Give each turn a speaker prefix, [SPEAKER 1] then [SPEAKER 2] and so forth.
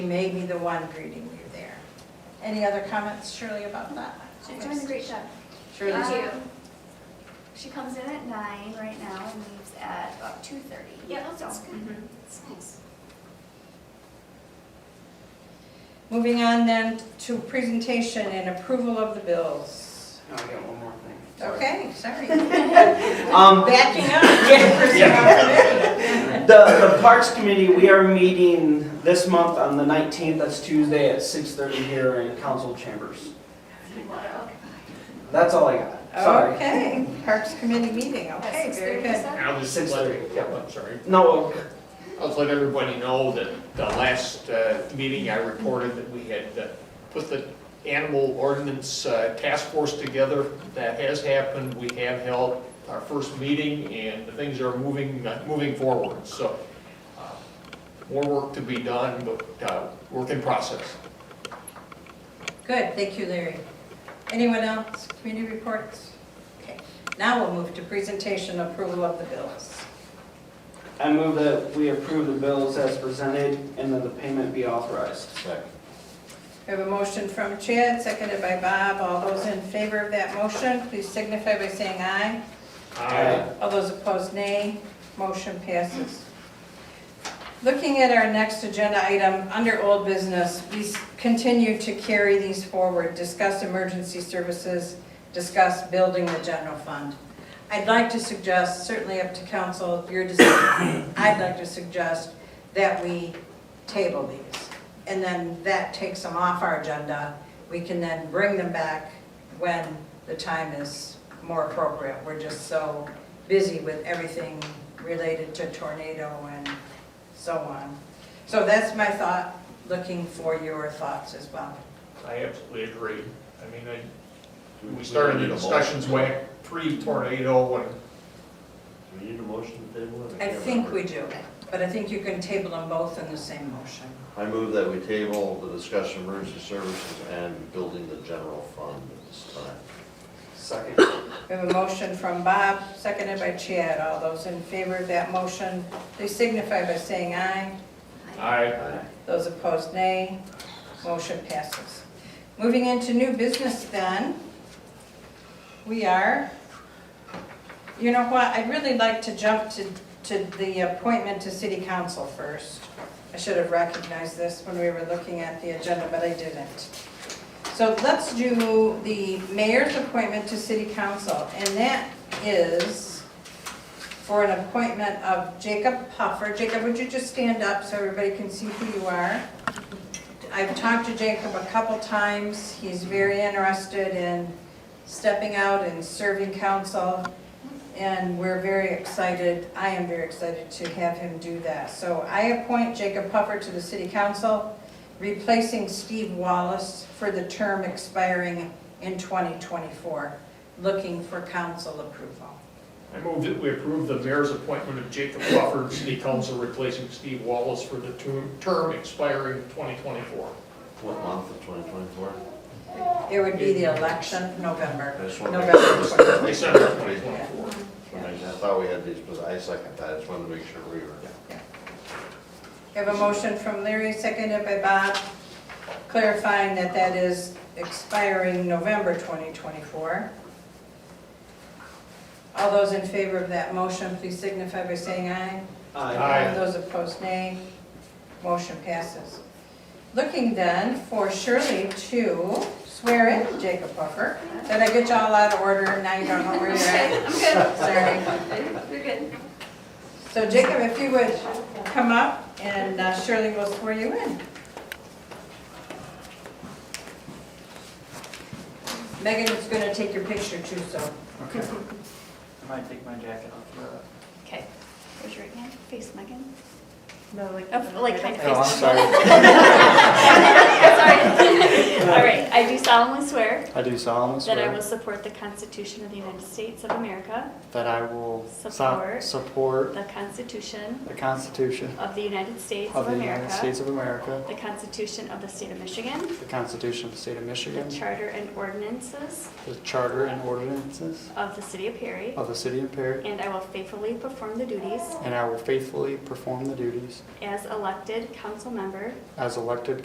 [SPEAKER 1] Maybe the one greeting you there. Any other comments, Shirley, about that?
[SPEAKER 2] She's doing a great job.
[SPEAKER 1] Shirley's-
[SPEAKER 2] Um, She comes in at nine right now and leaves at about two thirty. Mm-hmm.
[SPEAKER 3] Yeah, that sounds good.
[SPEAKER 1] Mhm.
[SPEAKER 3] That's nice.
[SPEAKER 1] Moving on then to presentation and approval of the bills.
[SPEAKER 4] No, I got one more thing. Sorry.
[SPEAKER 1] Okay, sorry.
[SPEAKER 4] Um,
[SPEAKER 1] Backing up. Jefferson.
[SPEAKER 4] the, the Parks Committee, we are meeting this month on the nineteenth, that's Tuesday at six thirty here in council chambers. That's all I got, sorry.
[SPEAKER 1] Okay, Parks Committee meeting,
[SPEAKER 2] At
[SPEAKER 1] okay, very
[SPEAKER 2] 6:30,
[SPEAKER 1] good.
[SPEAKER 2] so?
[SPEAKER 5] I'll just
[SPEAKER 4] Six
[SPEAKER 5] let,
[SPEAKER 4] thirty, yeah.
[SPEAKER 5] I'm sorry.
[SPEAKER 4] No,
[SPEAKER 5] I'll just let everybody know that the last uh, meeting I reported that we had uh, put the animal ordinance uh, task force together. That has happened. We have held our first meeting and the things are moving, uh, moving forward. So uh, more work to be done, but uh, work in process.
[SPEAKER 1] Good, thank you, Larry. Anyone else, community reports? Okay, now we'll move to presentation approval of the bills.
[SPEAKER 4] I move that we approve the bills as presented and that the payment be authorized.
[SPEAKER 1] We have a motion from Chad, seconded by Bob. All those in favor of that motion, please signify by saying aye.
[SPEAKER 4] Aye.
[SPEAKER 1] All those opposed, nay. Motion passes. Looking at our next agenda item, under old business, we s- continue to carry these forward, discuss emergency services, discuss building the general fund. I'd like to suggest, certainly up to council, your decision, I'd like to suggest that we table these. And then that takes them off our agenda. We can then bring them back when the time is more appropriate. We're just so busy with everything related to tornado and so on. So that's my thought, looking for your thoughts as well.
[SPEAKER 5] I absolutely agree. I mean, I, we
[SPEAKER 6] need
[SPEAKER 5] started the
[SPEAKER 6] a motion?
[SPEAKER 5] discussions way pre-tornado when
[SPEAKER 6] Do we need a motion to table it?
[SPEAKER 1] I
[SPEAKER 6] can't
[SPEAKER 1] think we
[SPEAKER 6] remember.
[SPEAKER 1] do, but I think you can table them both in the same motion.
[SPEAKER 6] I move that we table the discussion of emergency services and building the general fund at this time.
[SPEAKER 4] Second.
[SPEAKER 1] We have a motion from Bob, seconded by Chad. All those in favor of that motion, please signify by saying aye.
[SPEAKER 5] I
[SPEAKER 1] Those opposed, nay. Motion passes. Moving into new business then, we are, you know what, I'd really like to jump to, to the appointment to city council first. I should have recognized this when we were looking at the agenda, but I didn't. So let's do the mayor's appointment to city council, and that is for an appointment of Jacob Puffer. Jacob, would you just stand up so everybody can see who you are? I've talked to Jacob a couple times. He's very interested in stepping out and serving council, and we're very excited, I am very excited to have him do that. So I appoint Jacob Puffer to the city council, replacing Steve Wallace for the term expiring in 2024, looking for council approval.
[SPEAKER 5] I move that we approve the mayor's appointment of Jacob Crawford, city council, replacing Steve Wallace for the tu- term expiring 2024.
[SPEAKER 6] What month of 2024?
[SPEAKER 1] It would be the election, November.
[SPEAKER 6] I just wanted to make sure
[SPEAKER 1] November.
[SPEAKER 6] this- I
[SPEAKER 5] December
[SPEAKER 6] second that.
[SPEAKER 5] 2024.
[SPEAKER 6] I thought we had these, but I second that, I just wanted to make sure we were.
[SPEAKER 1] We have a motion from Larry, seconded by Bob, clarifying that that is expiring November 2024. All those in favor of that motion, please signify by saying aye.
[SPEAKER 5] Aye.
[SPEAKER 1] Those opposed, nay. Motion passes. Looking then for Shirley to swear in Jacob Buffer. Did I get you all out of order? Now you don't know where you're at.
[SPEAKER 3] I'm good.
[SPEAKER 1] Sorry.
[SPEAKER 3] You're good.
[SPEAKER 1] So Jacob, if you would come up and uh, Shirley will swear you in. Megan is going to take your picture too, so.
[SPEAKER 4] Okay. I might take my jacket off for that.
[SPEAKER 2] Okay, raise your right hand, face Megan.
[SPEAKER 1] No,
[SPEAKER 2] Oh, Like kind of
[SPEAKER 4] No, I'm
[SPEAKER 2] face.
[SPEAKER 4] sorry.
[SPEAKER 2] Sorry. All right, I do solemnly swear
[SPEAKER 7] I do solemnly
[SPEAKER 2] that I will
[SPEAKER 7] swear
[SPEAKER 2] support the Constitution of the United States of America,
[SPEAKER 7] that I will so-
[SPEAKER 2] Support.
[SPEAKER 7] support
[SPEAKER 2] the Constitution
[SPEAKER 7] the Constitution
[SPEAKER 2] of the United States
[SPEAKER 7] of
[SPEAKER 2] of
[SPEAKER 7] the United
[SPEAKER 2] America,
[SPEAKER 7] States of America,
[SPEAKER 2] the Constitution of the State of Michigan,
[SPEAKER 7] the Constitution of the State of Michigan,
[SPEAKER 2] the Charter and ordinances
[SPEAKER 7] the Charter and ordinances
[SPEAKER 2] of the City of Perry,
[SPEAKER 7] of the City of Perry,
[SPEAKER 2] and I will faithfully perform the duties
[SPEAKER 7] and I will faithfully perform the duties
[SPEAKER 2] as elected council member
[SPEAKER 7] as elected